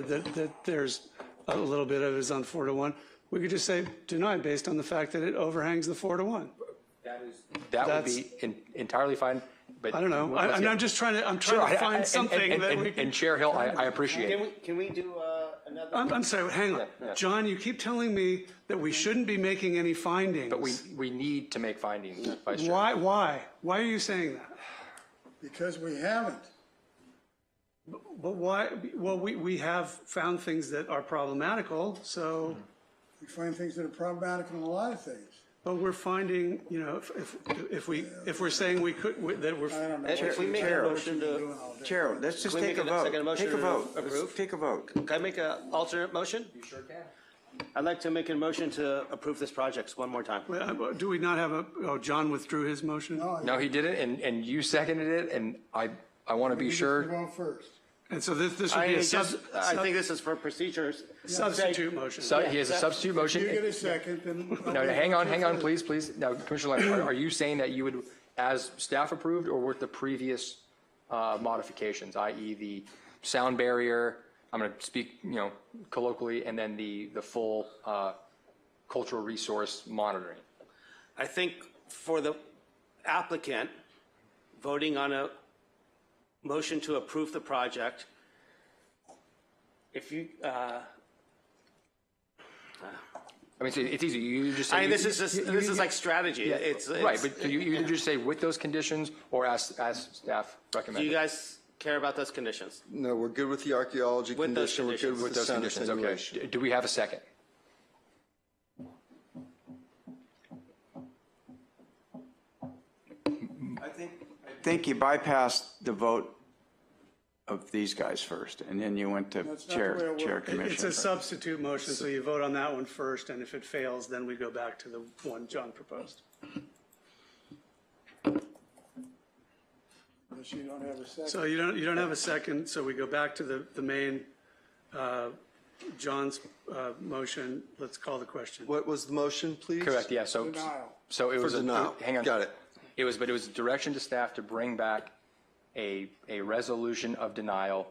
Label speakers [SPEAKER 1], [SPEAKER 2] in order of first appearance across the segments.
[SPEAKER 1] that, that there's a little bit of it is on four to one. We could just say deny based on the fact that it overhangs the four to one.
[SPEAKER 2] That would
[SPEAKER 1] That's-
[SPEAKER 2] be en- entirely fine, but.
[SPEAKER 1] I don't know. I, I'm, I'm just trying to, I'm trying to find something that we can.
[SPEAKER 2] And Chair Hill, I, I appreciate
[SPEAKER 3] Can
[SPEAKER 2] it.
[SPEAKER 3] we, can we do uh, another?
[SPEAKER 1] I'm, I'm sorry, hang on. John, you keep telling me that we shouldn't be making any findings.
[SPEAKER 2] But we, we need to make findings, Vice Chair.
[SPEAKER 1] Why, why? Why are you saying that?
[SPEAKER 4] because we haven't.
[SPEAKER 1] But why, well, we, we have found things that are problematical, so,
[SPEAKER 4] We find things that are problematic in a lot of things.
[SPEAKER 1] but we're finding, you know, if, if, if we, if we're saying we could, we- that we're.
[SPEAKER 4] I don't know.
[SPEAKER 3] If we make a
[SPEAKER 5] Chair.
[SPEAKER 3] motion to,
[SPEAKER 5] Chair, let's just
[SPEAKER 3] Can we
[SPEAKER 5] take a
[SPEAKER 3] make a
[SPEAKER 5] vote.
[SPEAKER 3] second motion
[SPEAKER 5] Take a
[SPEAKER 3] to
[SPEAKER 5] vote. Let's
[SPEAKER 3] approve?
[SPEAKER 5] Take a vote.
[SPEAKER 3] can I make an alternate motion? You sure can. I'd like to make a motion to approve this project one more time.
[SPEAKER 1] Uh, Do we not have a, oh, John withdrew his motion?
[SPEAKER 2] No, he didn't, and, and you seconded it, and I, I want to be
[SPEAKER 4] You
[SPEAKER 2] sure.
[SPEAKER 4] go first.
[SPEAKER 1] And so this, this would
[SPEAKER 3] I
[SPEAKER 1] be a sub,
[SPEAKER 3] just, I
[SPEAKER 1] sub-
[SPEAKER 3] think this is for procedures.
[SPEAKER 1] substitute motion.
[SPEAKER 2] So he has a substitute motion.
[SPEAKER 4] You get a second, then.
[SPEAKER 2] No, no, hang on, hang on, please, please. Now, Commissioner Lambert, are you saying that you would, as staff approved or with the previous uh, modifications, i.e. the sound barrier, I'm going to speak, you know, colloquially, and then the, the full uh, cultural resource monitoring?
[SPEAKER 3] I think for the applicant, voting on a motion to approve the project, if you, uh,
[SPEAKER 2] I mean, so it's easy, you you just. say-
[SPEAKER 3] I mean, this is just,
[SPEAKER 2] you- you-
[SPEAKER 3] this is like strategy. It's,
[SPEAKER 2] Right,
[SPEAKER 3] it's,
[SPEAKER 2] but you, you either just say with those conditions or as, as staff
[SPEAKER 3] do you
[SPEAKER 2] recommended.
[SPEAKER 3] guys care about those conditions?
[SPEAKER 6] No, we're good with the archaeology
[SPEAKER 3] With those
[SPEAKER 6] condition, we're
[SPEAKER 3] conditions.
[SPEAKER 6] good with
[SPEAKER 2] With
[SPEAKER 6] the
[SPEAKER 2] those
[SPEAKER 6] sound
[SPEAKER 2] conditions, okay.
[SPEAKER 6] attenuation.
[SPEAKER 2] Do- Do we have a second?
[SPEAKER 5] I think you bypassed the vote of these guys first, and then you went to
[SPEAKER 4] That's not the way
[SPEAKER 5] Chair,
[SPEAKER 4] it
[SPEAKER 5] Chair
[SPEAKER 4] works.
[SPEAKER 1] It's
[SPEAKER 5] Commission.
[SPEAKER 1] a substitute motion, so you vote on that one first, and if it fails, then we go back to the one John proposed.
[SPEAKER 4] Unless you don't have a second.
[SPEAKER 1] So you don't, you don't have a second, so we go back to the, the main, uh, John's, uh, motion. Let's call the question.
[SPEAKER 6] What was the motion, please?
[SPEAKER 2] Correct, yeah, so,
[SPEAKER 4] Denial.
[SPEAKER 2] so it
[SPEAKER 6] For
[SPEAKER 2] was. a-
[SPEAKER 6] denial.
[SPEAKER 2] Hang on.
[SPEAKER 6] Got it.
[SPEAKER 2] It was, but it was direction to staff to bring back a, a resolution of denial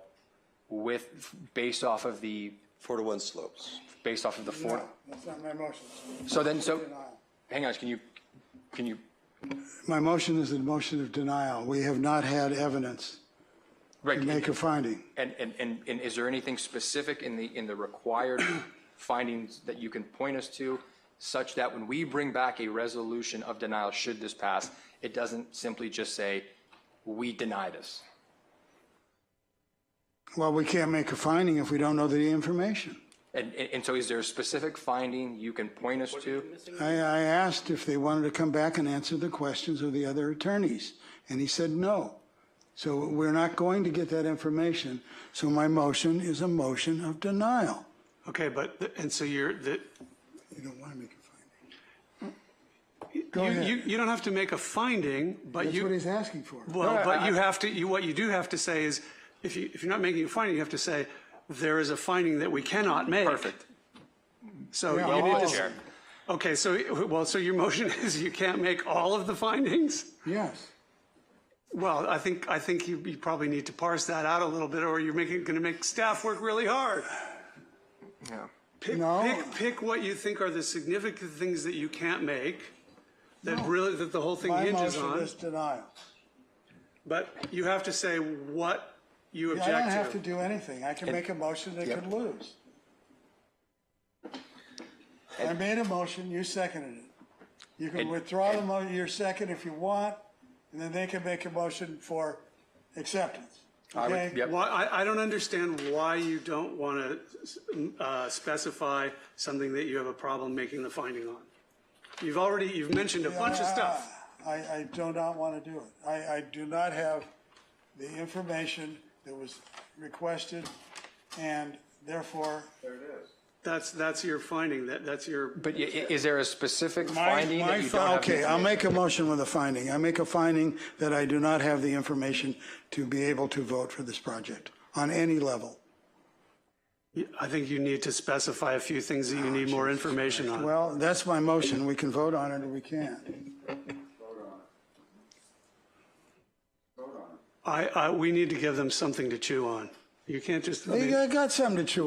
[SPEAKER 2] with, based off of the,
[SPEAKER 6] Four to one slopes.
[SPEAKER 2] based off of the four.
[SPEAKER 4] No, that's not my motion.
[SPEAKER 2] So then, so,
[SPEAKER 4] Denial.
[SPEAKER 2] hang on, can you, can you,
[SPEAKER 4] My motion is a motion of denial. We have not had evidence
[SPEAKER 2] right,
[SPEAKER 4] to make a
[SPEAKER 2] and,
[SPEAKER 4] finding.
[SPEAKER 2] and, and, and is there anything specific in the, in the required findings that you can point us to such that when we bring back a resolution of denial, should this pass, it doesn't simply just say, we deny this?
[SPEAKER 4] Well, we can't make a finding if we don't know the information.
[SPEAKER 2] And, and and so is there a specific finding you can point us to?
[SPEAKER 4] I, I asked if they wanted to come back and answer the questions of the other attorneys, and he said no. So we're not going to get that information, so my motion is a motion of denial.
[SPEAKER 1] Okay, but, the- and so you're, the,
[SPEAKER 4] You don't want to make a
[SPEAKER 1] you,
[SPEAKER 4] finding. Go
[SPEAKER 1] you,
[SPEAKER 4] ahead.
[SPEAKER 1] you don't have to make a finding, but
[SPEAKER 4] That's what
[SPEAKER 1] you,
[SPEAKER 4] he's asking for.
[SPEAKER 1] well, but you have to, you, what you do have to say is, if you, if you're not making a finding, you have to say, there is a finding that we cannot make.
[SPEAKER 2] Perfect.
[SPEAKER 1] So
[SPEAKER 4] Yeah,
[SPEAKER 1] you
[SPEAKER 4] all
[SPEAKER 1] need to.
[SPEAKER 4] of
[SPEAKER 2] Chair.
[SPEAKER 1] Okay, so, well, so your motion is you can't make all of the findings?
[SPEAKER 4] Yes.
[SPEAKER 1] Well, I think, I think you, you probably need to parse that out a little bit, or you're making, gonna make staff work really hard.
[SPEAKER 2] Yeah.
[SPEAKER 1] Pick,
[SPEAKER 4] No.
[SPEAKER 1] pick, pick what you think are the significant things that you can't make, that really, that the whole thing
[SPEAKER 4] My
[SPEAKER 1] hinges
[SPEAKER 4] motion
[SPEAKER 1] on,
[SPEAKER 4] is denial.
[SPEAKER 1] but you have to say what you
[SPEAKER 4] I don't have
[SPEAKER 1] object
[SPEAKER 4] to
[SPEAKER 1] to.
[SPEAKER 4] do anything. I can make a motion that could lose. I made a motion, you seconded it. You can
[SPEAKER 2] And-
[SPEAKER 4] withdraw the mo, your second if you want, and then they can make a motion for acceptance.
[SPEAKER 2] I would-
[SPEAKER 4] Okay?
[SPEAKER 2] yep.
[SPEAKER 1] Why, I, I don't understand why you don't wanna, uh, specify something that you have a problem making the finding on. You've already, you've mentioned a bunch of stuff.
[SPEAKER 4] I, I do not want to do it. I, I do not have the information that was requested, and therefore,
[SPEAKER 1] That's, that's your finding, that, that's your.
[SPEAKER 2] But i- i- is there a specific
[SPEAKER 4] My-
[SPEAKER 2] finding
[SPEAKER 4] my
[SPEAKER 2] that you
[SPEAKER 4] fi-
[SPEAKER 2] don't have?
[SPEAKER 4] Okay, I'll
[SPEAKER 2] information?
[SPEAKER 4] make a motion with a finding. I make a finding that I do not have the information to be able to vote for this project on any level.
[SPEAKER 1] I think you need to specify a few things that you need more information on.
[SPEAKER 4] Well, that's my motion. We can vote on it or we can't.
[SPEAKER 1] I, I, we need to give them something to chew on. You can't just. I mean-
[SPEAKER 4] They got something to chew